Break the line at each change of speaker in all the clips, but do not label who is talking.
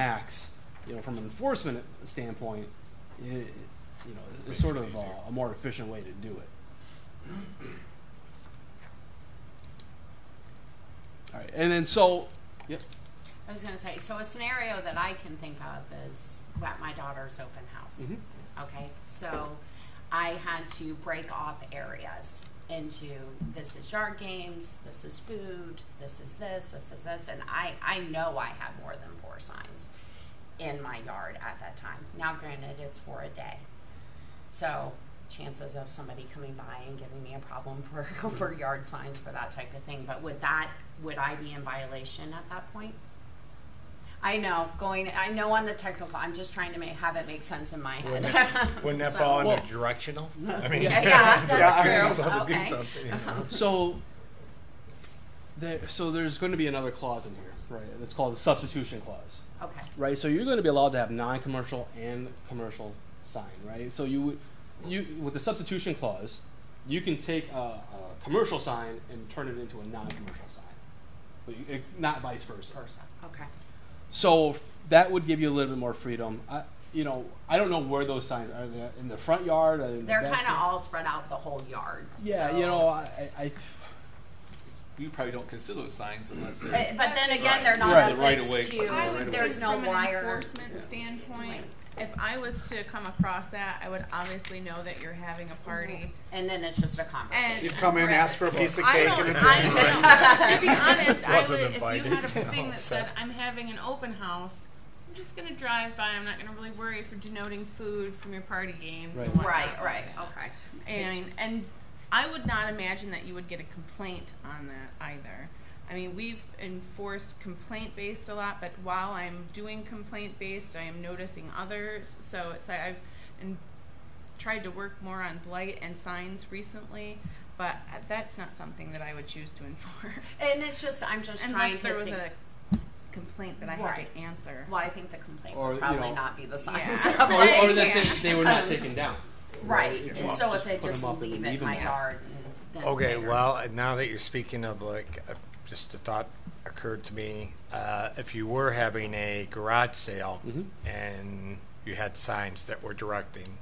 max, you know, from an enforcement standpoint, i- you know, it's sort of uh, a more efficient way to do it. All right, and then so, yep,
I was gonna say, so a scenario that I can think of is at my daughter's open house.
Mhm.
Okay, so I had to break off areas into this is yard games, this is food, this is this, this is this, and I, I know I had more than four signs in my yard at that time. Now granted, it's for a day. So chances of somebody coming by and giving me a problem for, for yard signs for that type of thing, but would that, would I be in violation at that point? I know, going, I know on the technical, I'm just trying to make, have it make sense in my head.
Wouldn't that, wouldn't that
So-
fall under
Well-
directional? I mean,
Yeah, yeah,
if
that's
you're
true.
about to do
Okay. Uh-huh.
something, you know.
so there, so there's going to be another clause in here, right? and It's called the substitution clause.
Okay,
right? So you're going to be allowed to have non-commercial and commercial sign, right? So you, would- you with the substitution clause, you can take a, a commercial sign and turn it into a non-commercial sign, but you, it, not vice versa.
versa, okay.
So f- that would give you a little bit more freedom. I, you know, I don't know where those signs are. They in the front yard? Are they in
They're
the
kind of
backyard?
all spread out the whole yard.
Yeah,
so-
you know, I, I, I
You probably don't consider those signs unless
Uh,
they're.
But then again, they're
Right.
not
The right of
affixed
way-
I
Right
to,
would
away.
there's
think
no
from an
wire.
Enforcement standpoint, if I was to come across that, I would obviously know that you're having a party.
And then it's just a conversation.
And-
You'd come in, ask for a piece of
I
cake
don't,
and a drink.
I don't, to be honest, I
Wasn't
would, if
invited.
you had a thing
No,
that
upset.
said, I'm having an open house, I'm just gonna drive by, I'm not gonna really worry if you're denoting food from your party games
Right.
and whatnot.
Right, right, okay.
And and I would not imagine that you would get a complaint on that either. I mean, we've enforced complaint based a lot, but while I'm doing complaint based, I am noticing others. So it's like I've and tried to work more on blight and signs recently, but that's not something that I would choose to enforce
And it's just, I'm just trying
unless there
to
was
think,
a complaint that I had
Right.
to answer.
well, I think the complaint
Or,
would
you
probably
know-
not be the
Yeah.
signs.
or,
Right,
or that
yeah.
they, they were not taken down.
Right,
Yeah.
and
Well,
so
just
if they
put 'em
just
up and
leave it
leave
in
'em
my
there.
yard. and then
Okay,
later-
well, and now that you're speaking of like, uh, just a thought occurred to me. Uh, if you were having a garage sale
Mhm.
Mm-hmm.
and you had signs that were directing,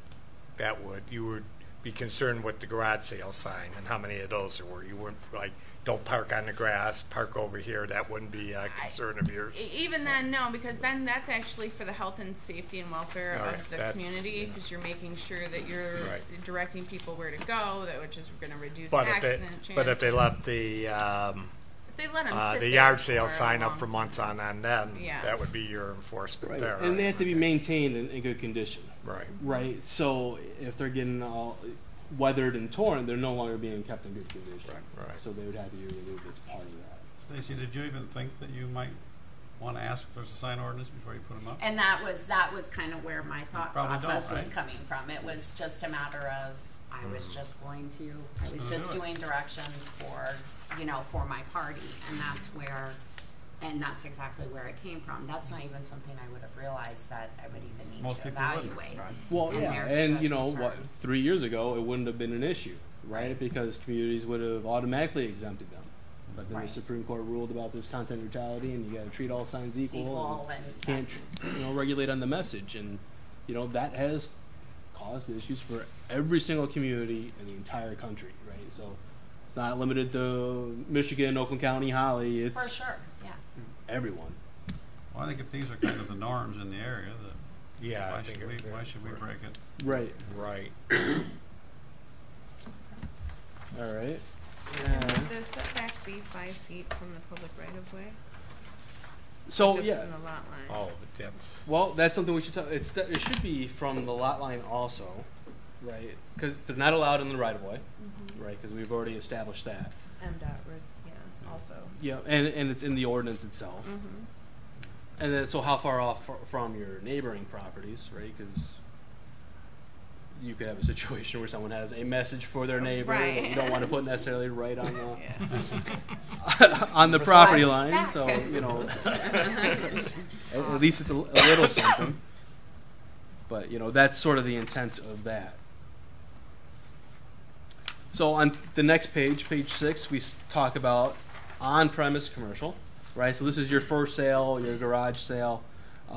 that would you would be concerned with the garage sale sign and how many of those there were. You wouldn't like, don't park on the grass, park over here. That wouldn't be a concern of yours.
E- Even then, no, because then that's actually for the health and safety and welfare
All right,
of the
that's-
community,
yeah.
because you're making sure that you're
Right.
directing people where to go, that which is going to reduce
But if they,
accident chance.
but if they left the um,
If they let 'em
uh,
sit
the
there
yard sale
for a
sign up
long
for months on end, then
Yeah.
that would be your enforcement
Right.
there.
And they
right?
have to be maintained in, in good condition.
Right.
Right. So if they're getting all weathered and torn, they're no longer being kept in good condition.
Right, right.
So they would have to be removed as part of that.
Stacy, did you even think that you might want to ask if there's a sign ordinance before you put them up?
And that was, that was kind of where my thought
Probably
process
don't,
was
right?
coming from. It was just a matter of, I was just going to, I was
gonna
just
do it.
doing directions for, you know, for my party. And that's where, and that's exactly where it came from. That's not even something I would have realized that I would even need
Most
to
people wouldn't,
evaluate.
right?
Well,
And
yeah,
there's
and
the
you know what?
concern.
Three years ago, it wouldn't have been an issue, right? Because communities would have automatically exempted them. But then
Right.
the Supreme Court ruled about this content neutrality, and you got to treat all signs equal.
Sequel
and
and.
can't you know regulate on the message and you know that has caused issues for every single community in the entire country right so it's not limited to michigan oakland county holly it's
For sure, yeah.
everyone
Well, I think if these are kind of the norms in the area, that
Yeah, I
why
think
should we,
it-
why should we break it?
right
Right.
all right
Would the setback be five feet from the public right of way?
so
Just
yeah
from the lot line.
Oh, that's
well that's something we should talk it's it should be from the lot line also right because they're not allowed in the right of way
Mm-hmm.
right because we've already established that
M dot, re- yeah, also.
yeah and and it's in the ordinance itself
Mm-hmm.
And then, so how far off fr- from your neighboring properties, right? Because you could have a situation where someone has a message for their neighbor that you
Right.
don't want to put necessarily right on the
Yeah.
on the property
Slide it
line.
back.
So you know, at, at least it's a, l- a little something. But you know, that's sort of the intent of that. So on the next page, page six, we s- talk about on-premise commercial, right? So this is your first sale, your garage sale.